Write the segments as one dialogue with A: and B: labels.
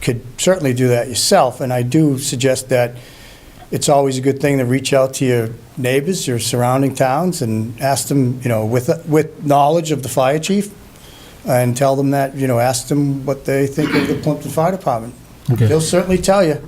A: could certainly do that yourself, and I do suggest that it's always a good thing to reach out to your neighbors, your surrounding towns, and ask them, you know, with, with knowledge of the fire chief, and tell them that, you know, ask them what they think of the Plimpton Fire Department.
B: Okay.
A: They'll certainly tell you.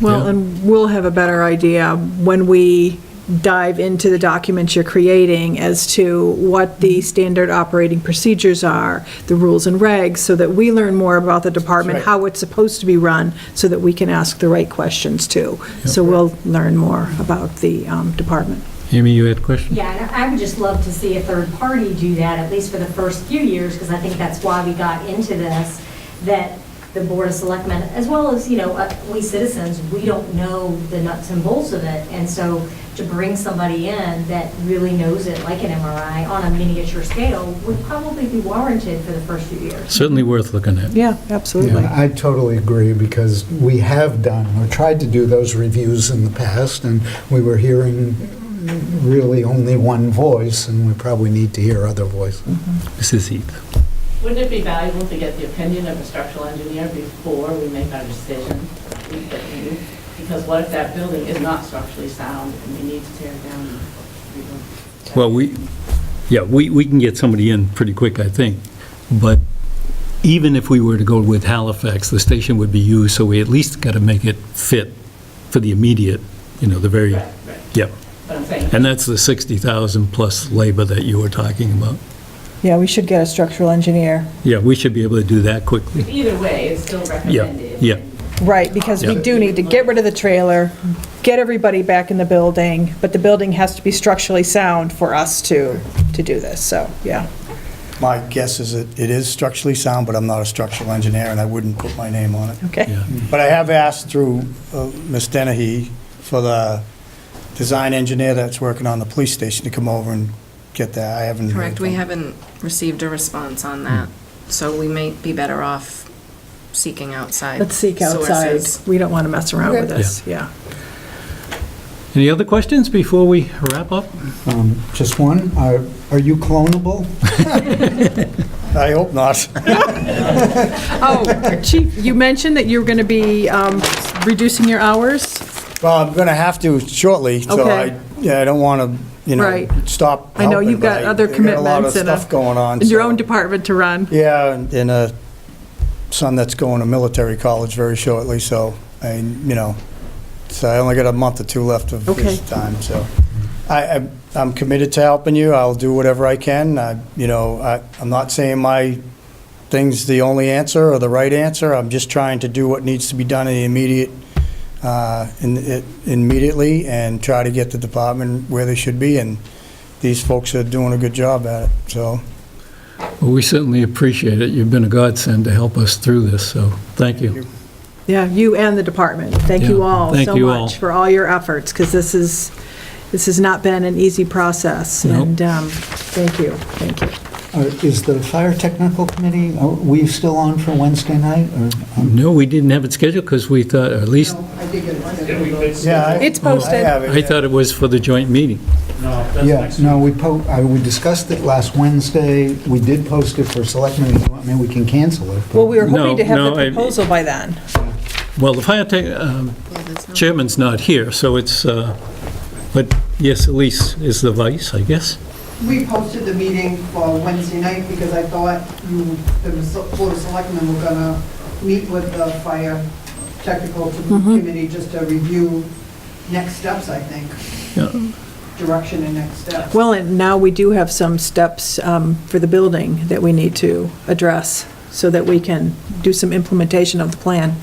C: Well, and we'll have a better idea when we dive into the documents you're creating as to what
A: Mm-hmm.
C: the standard operating procedures are, the rules and regs, so that we learn more about the department,
A: That's right.
C: how it's supposed to be run, so that we can ask the right questions too. So we'll learn more about the um, department.
B: Amy, you had a question?
D: Yeah, and I would just love to see a third party do that, at least for the first few years, because I think that's why we got into this, that the Board of Selectmen, as well as, you know, uh, we citizens, we don't know the nuts and bolts of it. And so to bring somebody in that really knows it, like an MRI, on a miniature scale, would probably be warranted for the first few years.
B: Certainly worth looking at.
C: Yeah, absolutely.
E: Yeah, I totally agree, because we have done, or tried to do those reviews in the past, and we were hearing really only one voice, and we probably need to hear other voices.
B: Mrs. Heath.
F: Wouldn't it be valuable to get the opinion of a structural engineer before we make our decision? We put you- Because what if that building is not structurally sound and we need to tear it down? and rebuild?
B: Well, we, yeah, we, we can get somebody in pretty quick, I think. But even if we were to go with Halifax, the station would be used, so we at least got to make it fit for the immediate, you know, the very,
F: Right, right,
B: yeah.
F: but I'm saying,
B: And that's the 60,000 plus labor that you were talking about.
C: Yeah, we should get a structural engineer.
B: Yeah, we should be able to do that quickly.
F: either way, it's still recommended.
B: yeah.
C: Right, because we
B: Yeah.
C: do need to get rid of the trailer, get everybody back in the building, but the building has to be structurally sound for us to, to do this, so, yeah.
A: My guess is that it is structurally sound, but I'm not a structural engineer, and I wouldn't put my name on it.
C: Okay.
B: Yeah.
A: But I have asked through uh, Ms. Dennehy for the design engineer that's working on the police station to come over and get that. I haven't. heard
G: Correct, we
A: from-
G: haven't received a response on that, so we might be better off seeking outside
C: Let's seek outside.
G: sources.
C: We don't want to mess around with this, yeah.
B: Any other questions before we wrap up?
E: Um, Just one, are are you clonable?
A: I hope not.
C: Oh, Chief, you mentioned that you were going to be um, reducing your hours?
A: Well, I'm going to have to shortly, so I,
C: Okay.
A: yeah, I don't want to, you know,
C: Right.
A: stop.
C: I know
A: helping,
C: you've got
A: but I-
C: other
A: I got a lot of
C: commitments and a-
A: stuff going on.
C: Your
A: so-
C: own department to run?
A: Yeah, and- and a son that's going to military college very shortly, so, I, you know, so I only got a month or two left of
C: Okay.
A: his time, so. I, I'm- I'm committed to helping you, I'll do whatever I can, I, you know, I, I'm not saying my thing's the only answer or the right answer, I'm just trying to do what needs to be done in the immediate, uh, in, it- immediately, and try to get the department where they should be, and these folks are doing a good job at it, so.
B: Well, we certainly appreciate it. You've been a godsend to help us through this, so thank you.
C: Yeah, you and the department. Thank you
B: Yeah,
C: all
B: thank
C: so
B: you all.
C: much for all your efforts, because this is, this has not been an easy process.
B: Nope.
C: And um, thank you, thank you.
E: Or Uh, Is the fire technical committee, are we still on for Wednesday night? or-
B: No, we didn't have it scheduled because we thought, or at least,
F: I did get one.
A: Yeah, I-
C: It's
A: I
C: posted.
A: have it,
B: I
A: yeah.
B: thought it was for the joint meeting.
E: Yeah, no, we po, I- we discussed it last Wednesday, we did post it for selectmen, I mean, we can cancel it. but-
C: Well, we were
B: No,
C: hoping to have
B: no, I-
C: the proposal by then.
B: Well, the fire tech, um,
G: Yeah, there's no-
B: chairman's not here, so it's, uh, but yes, Elise is the vice, I guess.
H: We posted the meeting for Wednesday night because I thought you, the Board of Selectmen were gonna meet with the fire technical committee just to review next steps, I think,
B: Yeah.
H: direction and next steps.
C: Well, and now we do have some steps um, for the building that we need to address so that we can do some implementation of the plan.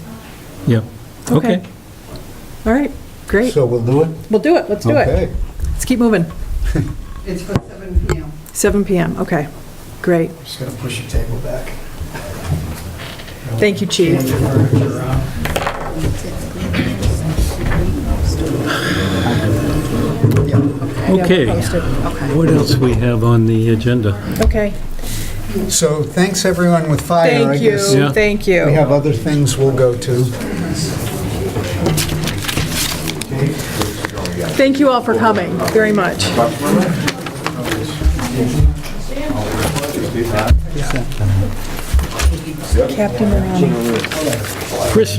B: Yeah, okay.
C: All right, great.
E: So we'll do it?
C: We'll do it, let's do it.
E: Okay.
C: Let's keep moving.
H: It's for seven PM.
C: 7 PM, okay, great.
A: Just gonna push your table back.
C: Thank you, Chief.
B: Okay. What else we have on the agenda?
C: Okay,
E: So thanks, everyone with fire. I
C: thank you,
E: guess
B: Yeah.
C: thank
E: We
C: you.
E: have other things we'll go to.
C: Thank you all for coming, very much. Captain Morano.
B: Chris,